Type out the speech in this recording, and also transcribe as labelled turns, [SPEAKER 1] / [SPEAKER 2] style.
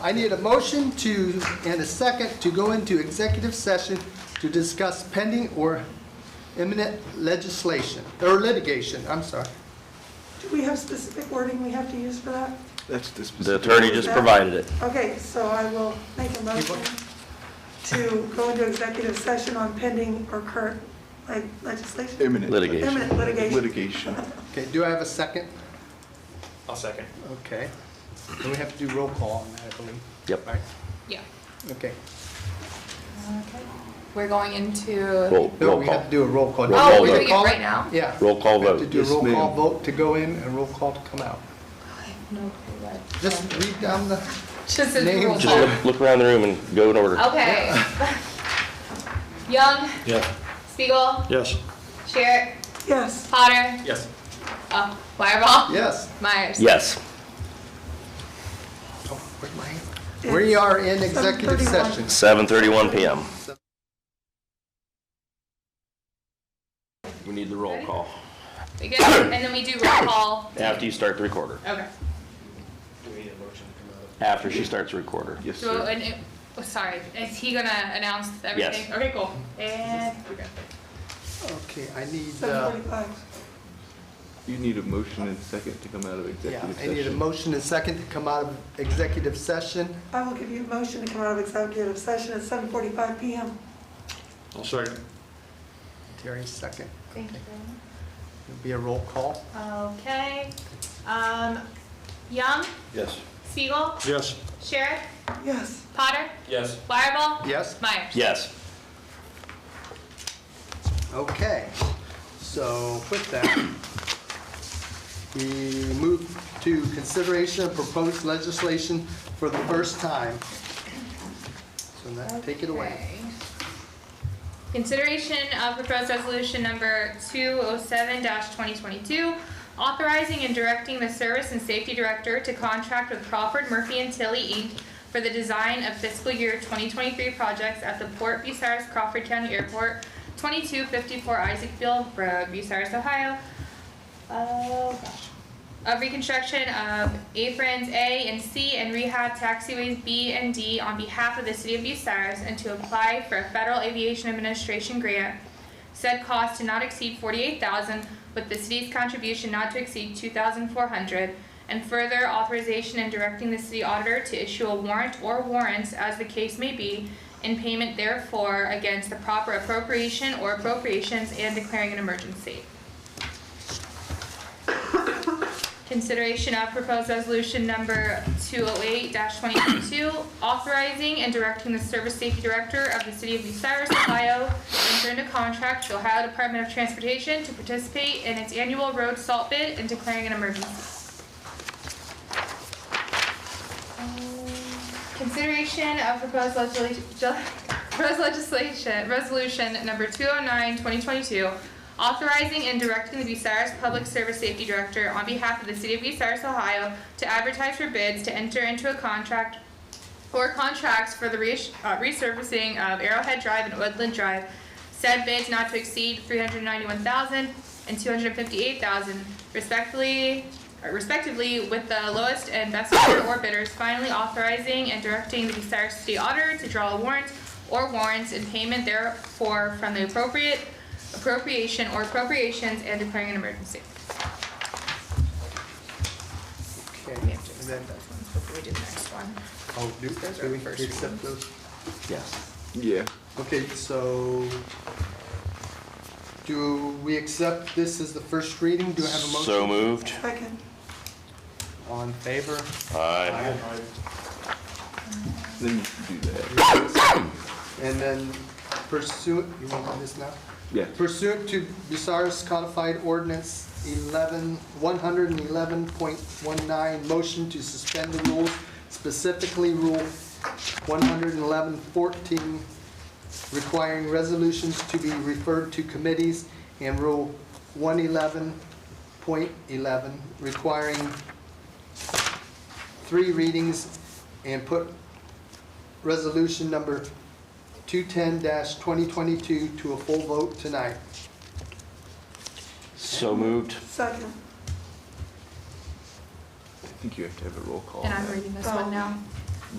[SPEAKER 1] I need a motion to, and a second, to go into executive session to discuss pending or imminent legislation, or litigation, I'm sorry.
[SPEAKER 2] Do we have specific wording we have to use for that?
[SPEAKER 3] That's the specific.
[SPEAKER 4] The attorney just provided it.
[SPEAKER 2] Okay, so I will make a motion to go into executive session on pending or current like, legislation,
[SPEAKER 3] Imminent.
[SPEAKER 4] Litigation.
[SPEAKER 2] imminent litigation.
[SPEAKER 3] Litigation.
[SPEAKER 1] Okay, do I have a second?
[SPEAKER 5] I'll second.
[SPEAKER 1] Okay. Then we have to do roll call on that, I believe.
[SPEAKER 4] Yep.
[SPEAKER 1] Right?
[SPEAKER 6] Yeah.
[SPEAKER 1] Okay.
[SPEAKER 6] We're going into,
[SPEAKER 4] Roll,
[SPEAKER 1] No,
[SPEAKER 4] roll
[SPEAKER 1] we have
[SPEAKER 4] call.
[SPEAKER 1] to do a roll call.
[SPEAKER 4] Roll call
[SPEAKER 6] oh, we're
[SPEAKER 4] vote.
[SPEAKER 6] doing it right now?
[SPEAKER 1] Yeah.
[SPEAKER 4] Roll call
[SPEAKER 1] We have to
[SPEAKER 4] vote.
[SPEAKER 1] do a
[SPEAKER 3] Yes,
[SPEAKER 1] roll call
[SPEAKER 3] ma'am.
[SPEAKER 1] vote to go in and roll call to come out.
[SPEAKER 6] No clue what.
[SPEAKER 1] Just read down the,
[SPEAKER 6] Just as
[SPEAKER 1] Name
[SPEAKER 6] roll
[SPEAKER 1] check.
[SPEAKER 4] Just
[SPEAKER 6] call.
[SPEAKER 4] look, look around the room and go in order.
[SPEAKER 6] Oh. Okay. Young,
[SPEAKER 5] Yeah.
[SPEAKER 6] Spiegel,
[SPEAKER 4] Yes.
[SPEAKER 6] Sherrick,
[SPEAKER 2] Yes,
[SPEAKER 6] Potter,
[SPEAKER 5] Yes.
[SPEAKER 6] uh, Wireball,
[SPEAKER 1] yes.
[SPEAKER 6] Myers.
[SPEAKER 4] Yes.
[SPEAKER 1] Oh, where's my hand? We are in executive
[SPEAKER 2] 7:31.
[SPEAKER 1] session.
[SPEAKER 4] 7:31 PM. We need the roll call.
[SPEAKER 6] We good? And then we do roll call.
[SPEAKER 4] After you start the recorder.
[SPEAKER 6] Okay.
[SPEAKER 4] After she starts the recorder.
[SPEAKER 3] Yes,
[SPEAKER 6] So,
[SPEAKER 3] sir.
[SPEAKER 6] and, it- oh, sorry, is he gonna announce everything? Okay, cool. And, we're good.
[SPEAKER 1] Okay, I need, uh,
[SPEAKER 2] 7:45.
[SPEAKER 3] You need a motion and second to come out of
[SPEAKER 1] yeah,
[SPEAKER 3] executive
[SPEAKER 1] I need a
[SPEAKER 3] session.
[SPEAKER 1] motion and second to come out of executive session.
[SPEAKER 2] I will give you a motion to come out of executive session at 7:45 PM.
[SPEAKER 5] I'll second.
[SPEAKER 1] Terry, second.
[SPEAKER 6] Thank you.
[SPEAKER 1] It'll be a roll call.
[SPEAKER 6] Okay, um, Young,
[SPEAKER 5] Yes.
[SPEAKER 6] Spiegel,
[SPEAKER 5] Yes.
[SPEAKER 6] Sherrick,
[SPEAKER 2] Yes.
[SPEAKER 6] Potter,
[SPEAKER 5] Yes.
[SPEAKER 6] Wireball,
[SPEAKER 1] Yes?
[SPEAKER 6] Myers.
[SPEAKER 4] Yes.
[SPEAKER 1] Okay. So with that, we move to consideration of proposed legislation for the first time. So now, take it away.
[SPEAKER 6] Okay. Consideration of proposed resolution number 207-2022, authorizing and directing the Service and Safety Director to contract with Crawford Murphy and Tilly, Inc. for the design of fiscal year 2023 projects at the Port Bucyrus Crawford County Airport, 2254 Isaacville Road, Bucyrus, Ohio. Oh, gosh. of reconstruction of aprons A and C and rehab taxiways B and D on behalf of the City of Bucyrus and to apply for a Federal Aviation Administration grant. Said cost to not exceed forty-eight thousand, with the city's contribution not to exceed two thousand four hundred. And further authorization and directing the city auditor to issue a warrant or warrants, as the case may be, in payment therefore against the proper appropriation or appropriations and declaring an emergency. Consideration of proposed resolution number 208-2022, authorizing and directing the Service Safety Director of the City of Bucyrus, Ohio, to enter into contract with Ohio Department of Transportation to participate in its annual road salt bid and declaring an emergency. Consideration of proposed legislation, proposed legislation, resolution number 209-2022, authorizing and directing the Bucyrus Public Service Safety Director on behalf of the City of Bucyrus, Ohio, to advertise for bids to enter into a contract or contracts for the res- uh, resurfacing of Arrowhead Drive and Woodland Drive. Said bids not to exceed three hundred ninety-one thousand and two hundred fifty-eight thousand respectfully, uh, respectively, with the lowest and best bidder or bidders finally authorizing and directing the Bucyrus City Auditor to draw a warrant or warrants in payment therefore from the appropriate appropriation or appropriations and declaring an emergency.
[SPEAKER 1] Okay.
[SPEAKER 6] We have to
[SPEAKER 1] And then,
[SPEAKER 6] accept those ones before we do the next one.
[SPEAKER 1] oh, do,
[SPEAKER 6] Those are
[SPEAKER 1] do we
[SPEAKER 6] first
[SPEAKER 1] accept
[SPEAKER 6] readings.
[SPEAKER 1] those?
[SPEAKER 4] Yes.
[SPEAKER 3] Yeah,
[SPEAKER 1] Okay, so do we accept this as the first reading? Do I have a motion?
[SPEAKER 4] So moved.
[SPEAKER 2] Second.
[SPEAKER 1] All in favor?
[SPEAKER 4] Aye.
[SPEAKER 3] then you should do that.
[SPEAKER 1] And then pursuant, you want to do this now?
[SPEAKER 3] Yeah.
[SPEAKER 1] Pursuant to Bucyrus Codified Ordinance 11, 111.19, motion to suspend the rules, specifically Rule 111.14, requiring resolutions to be referred to committees, and Rule 111.11, requiring three readings, and put resolution number 210-2022 to a full vote tonight.
[SPEAKER 4] So moved.
[SPEAKER 2] Second.
[SPEAKER 3] I think you have to have a roll call.
[SPEAKER 6] And
[SPEAKER 3] on
[SPEAKER 6] I'm
[SPEAKER 3] that.
[SPEAKER 1] Um,
[SPEAKER 6] reading this one now.